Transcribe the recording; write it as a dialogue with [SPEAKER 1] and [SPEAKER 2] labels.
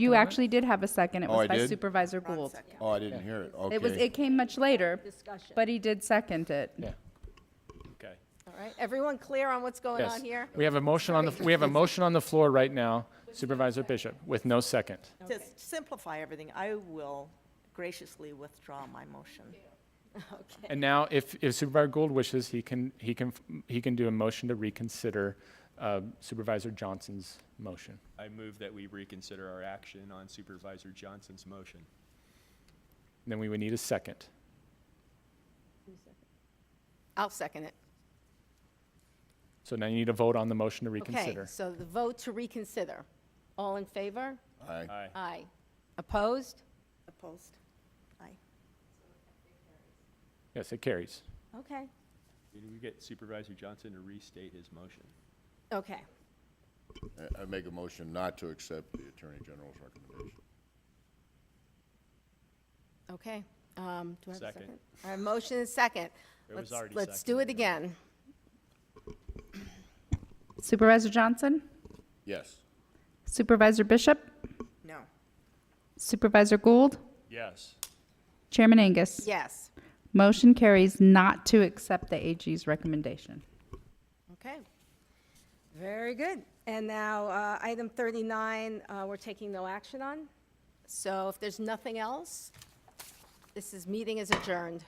[SPEAKER 1] You actually did have a second. It
[SPEAKER 2] Oh,
[SPEAKER 1] was
[SPEAKER 2] I
[SPEAKER 1] by
[SPEAKER 2] did?
[SPEAKER 1] Supervisor Gould.
[SPEAKER 2] Oh, I didn't hear it, okay.
[SPEAKER 1] It was, it came much later,
[SPEAKER 3] Discussion.
[SPEAKER 1] but he did second it.
[SPEAKER 4] Okay.
[SPEAKER 3] All right, everyone clear on what's going
[SPEAKER 4] Yes.
[SPEAKER 3] on here?
[SPEAKER 4] We have a motion on the, we have a motion on the floor right now, Supervisor Bishop, with no second.
[SPEAKER 5] To simplify everything, I will graciously withdraw my motion.
[SPEAKER 4] And now, if if Supervisor Gould wishes, he can, he can, he can do a motion to reconsider uh, Supervisor Johnson's motion.
[SPEAKER 6] I move that we reconsider our action on Supervisor Johnson's motion.
[SPEAKER 4] Then we would need a second.
[SPEAKER 3] I'll second it.
[SPEAKER 4] So now you need a vote on the motion to
[SPEAKER 3] Okay,
[SPEAKER 4] reconsider.
[SPEAKER 3] so the vote to reconsider. All in favor?
[SPEAKER 2] Aye.
[SPEAKER 6] Aye.
[SPEAKER 3] Aye. Opposed?
[SPEAKER 5] Opposed? Aye.
[SPEAKER 4] Yes, it carries.
[SPEAKER 3] Okay.
[SPEAKER 6] Did we get Supervisor Johnson to restate his motion?
[SPEAKER 3] Okay.
[SPEAKER 2] I- I make a motion not to accept the Attorney General's recommendation.
[SPEAKER 3] Okay. Um, do I have a
[SPEAKER 6] Second.
[SPEAKER 3] second? All right, motion is second.
[SPEAKER 6] It
[SPEAKER 3] Let's-
[SPEAKER 6] was already
[SPEAKER 3] Let's do it
[SPEAKER 6] seconded, yeah.
[SPEAKER 3] again.
[SPEAKER 1] Supervisor Johnson,
[SPEAKER 2] Yes.
[SPEAKER 1] Supervisor Bishop,
[SPEAKER 5] No.
[SPEAKER 1] Supervisor Gould,
[SPEAKER 6] Yes.
[SPEAKER 1] Chairman Angus.
[SPEAKER 3] Yes.
[SPEAKER 1] Motion carries not to accept the AG's recommendation.
[SPEAKER 3] Okay. Very good. And now, uh, item 39, uh, we're taking no action on. So if there's nothing else, this is, meeting is adjourned.